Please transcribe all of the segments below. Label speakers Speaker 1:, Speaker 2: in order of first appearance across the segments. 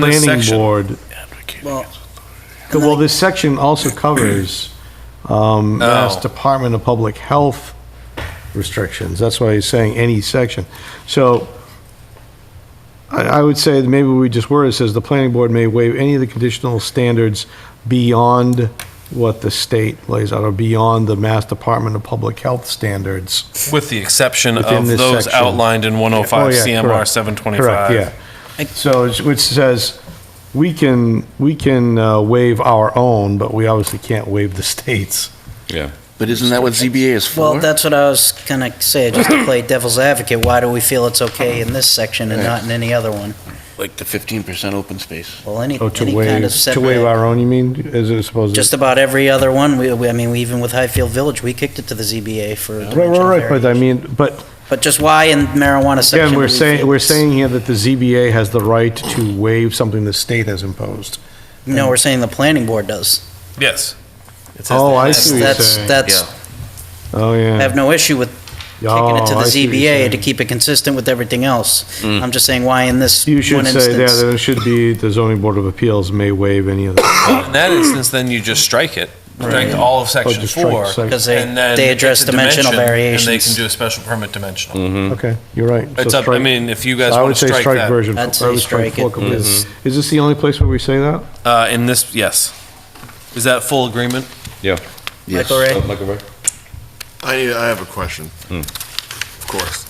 Speaker 1: planning
Speaker 2: section.
Speaker 1: board.
Speaker 2: Well,
Speaker 1: Well, this section also covers um, Mass
Speaker 2: Oh.
Speaker 1: Department of Public Health restrictions. That's why he's saying any section. So I, I would say that maybe we just word it says the planning board may waive any of the conditional standards beyond what the state lays out or beyond the Mass Department of Public Health standards.
Speaker 2: with the exception
Speaker 1: Within
Speaker 2: of
Speaker 1: this
Speaker 2: those
Speaker 1: section.
Speaker 2: outlined in
Speaker 1: Oh,
Speaker 2: 105
Speaker 1: yeah,
Speaker 2: CMR
Speaker 1: correct.
Speaker 2: 725.
Speaker 1: Correct, yeah. So, it's- which says, we can, we can uh, waive our own, but we obviously can't waive the state's.
Speaker 3: Yeah.
Speaker 4: But isn't that what ZBA is for?
Speaker 5: Well, that's what I was gonna say, just to play devil's advocate, why do we feel it's okay in this section and not in any other one?
Speaker 4: Like the fifteen percent open space.
Speaker 5: Well, any,
Speaker 1: Oh, to
Speaker 5: any kind
Speaker 1: waive,
Speaker 5: of
Speaker 1: to waive
Speaker 5: setback,
Speaker 1: our own, you mean, as it supposed to?
Speaker 5: just about every other one, we, we- I mean, we- even with Highfield Village, we kicked it to the ZBA for
Speaker 1: Right,
Speaker 5: dimensional
Speaker 1: right, right, but I
Speaker 5: variance.
Speaker 1: mean, but
Speaker 5: But just why in marijuana section?
Speaker 1: again,
Speaker 5: do
Speaker 1: we're
Speaker 5: we
Speaker 1: saying,
Speaker 5: feel
Speaker 1: we're
Speaker 5: it's-
Speaker 1: saying here that the ZBA has the right to waive something the state has imposed.
Speaker 5: No, we're saying the planning board does.
Speaker 2: Yes.
Speaker 1: Oh, I
Speaker 5: That's,
Speaker 1: see what you're
Speaker 5: that's,
Speaker 1: saying.
Speaker 5: that's,
Speaker 1: Oh, yeah.
Speaker 5: I have no issue with kicking it to the ZBA to keep it consistent with everything else. I'm just saying why in this one
Speaker 1: You should say, yeah,
Speaker 5: instance?
Speaker 1: that it should be, the zoning board of appeals may waive any of the.
Speaker 2: In that instance, then you just strike it, strike all of
Speaker 1: Oh,
Speaker 2: section
Speaker 1: just strike
Speaker 2: four.
Speaker 1: section.
Speaker 5: Because they-
Speaker 2: and then
Speaker 5: they
Speaker 2: it's
Speaker 5: address
Speaker 2: a
Speaker 5: dimensional
Speaker 2: dimension, And they can
Speaker 5: variations.
Speaker 2: do a special permit dimensional.
Speaker 1: Okay, you're right. Mm, So
Speaker 2: Hmm. It's up, I
Speaker 1: strike-
Speaker 2: mean, if you guys
Speaker 1: I
Speaker 2: want
Speaker 1: would
Speaker 2: to
Speaker 1: say
Speaker 2: strike
Speaker 1: strike
Speaker 2: that. Mm-hmm.
Speaker 1: version.
Speaker 5: I'd
Speaker 1: I
Speaker 5: say
Speaker 1: would
Speaker 5: strike
Speaker 1: four
Speaker 5: it.
Speaker 1: completely. Is this the only place where we say that?
Speaker 2: Uh, in this, yes. Is that full agreement?
Speaker 3: Yeah.
Speaker 4: Yes.
Speaker 5: Michael Ray?
Speaker 3: Michael Ray?
Speaker 6: I need, I have a question. Of course.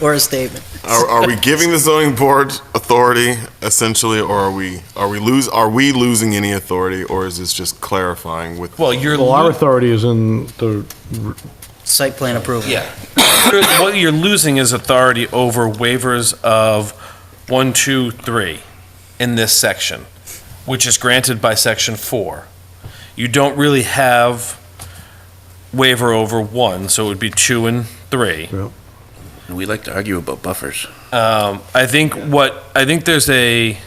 Speaker 5: Or a statement?
Speaker 6: Are, are we giving the zoning board authority essentially, or are we, are we lose, are we losing any authority, or is this just clarifying with?
Speaker 2: Well, you're.
Speaker 1: Well, our
Speaker 2: lo-
Speaker 1: authority is in the,
Speaker 5: Site plan approval.
Speaker 2: Yeah. What you're losing is authority over waivers of one, two, three in this section, which is granted by section four. You don't really have waiver over one, so it would be two and three.
Speaker 4: And we like to argue about buffers.
Speaker 2: Um, I think what, I think there's a.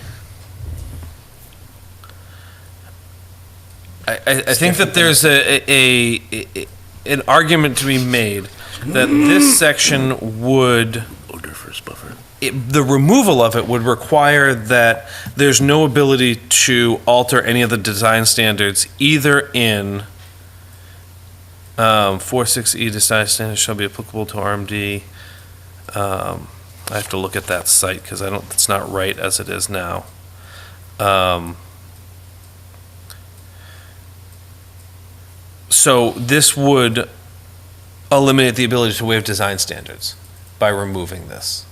Speaker 2: I, I, I think that there's a, a, a- an argument to be made that this section would
Speaker 4: Odoriferous buffer.
Speaker 2: it, the removal of it would require that there's no ability to alter any of the design standards either in um, 46E design standards shall be applicable to RMD. Um, I have to look at that site because I don't, it's not right as it is now. Um, so this would eliminate the ability to waive design standards by removing this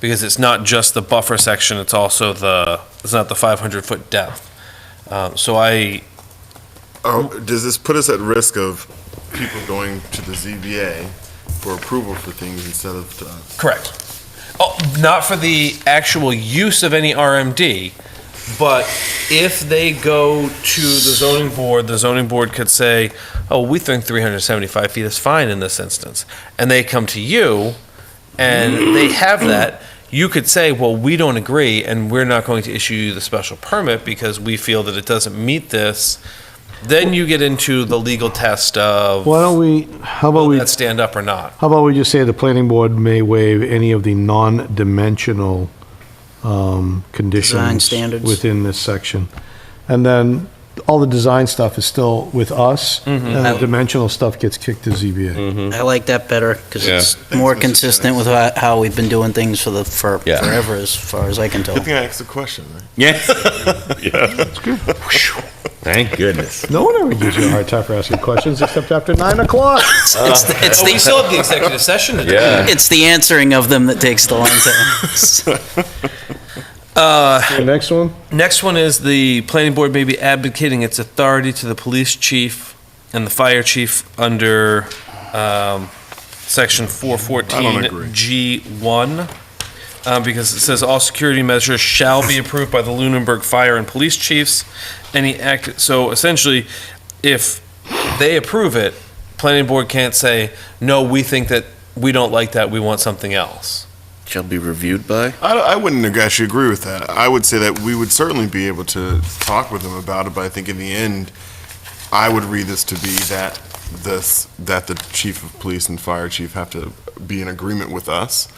Speaker 2: because it's not just the buffer section, it's also the, it's not the 500-foot depth. Um, So I,
Speaker 6: Are- Does this put us at risk of people going to the ZBA for approval for things instead of uh, to us?
Speaker 2: correct. Oh, Not for the actual use of any RMD, but if they go to the zoning board, the zoning board could say, oh, we think 375 feet is fine in this instance. And they come to you, and they have that, you could say, well, we don't agree, and we're not going to issue you the special permit because we feel that it doesn't meet this. Then you get into the legal test of,
Speaker 1: why don't we, how about
Speaker 2: will
Speaker 1: we,
Speaker 2: that stand up or not?
Speaker 1: how about we just say the planning board may waive any of the non-dimensional, um, conditions.
Speaker 5: standards.
Speaker 1: Within this section. And then all the design stuff is still with us,
Speaker 2: Mm-hmm.
Speaker 1: and the dimensional stuff gets kicked to ZBA.
Speaker 5: I like that better because
Speaker 3: Yeah.
Speaker 5: it's more
Speaker 6: Thanks, Mr.
Speaker 5: consistent with ho- how we've been doing things for the, for
Speaker 3: Yeah.
Speaker 5: forever, as far as I can tell.
Speaker 6: Good thing I asked the question, right?
Speaker 3: Yeah. Thank goodness.
Speaker 1: No one ever gives you a hard time for asking questions, except after nine o'clock.
Speaker 5: It's it's the, it's
Speaker 2: Oh, we
Speaker 5: the,
Speaker 2: still have the executive session to do.
Speaker 3: Yeah.
Speaker 5: it's the answering of them that takes the long time.
Speaker 1: The next one?
Speaker 2: Next one is the planning board may be advocating its authority to the police chief and the fire chief under um, section
Speaker 6: I don't agree.
Speaker 2: 414 G1, uh, because it says all security measures shall be approved by the Lunenburg Fire and Police Chiefs. Any act, so essentially, if they approve it, planning board can't say, no, we think that, we don't like that, we want something else.
Speaker 4: Shall be reviewed by?
Speaker 6: I, I wouldn't ag- actually agree with that. I would say that we would certainly be able to talk with them about it, but I think in the end, I would read this to be that this, that the chief of police and fire chief have to be in agreement with us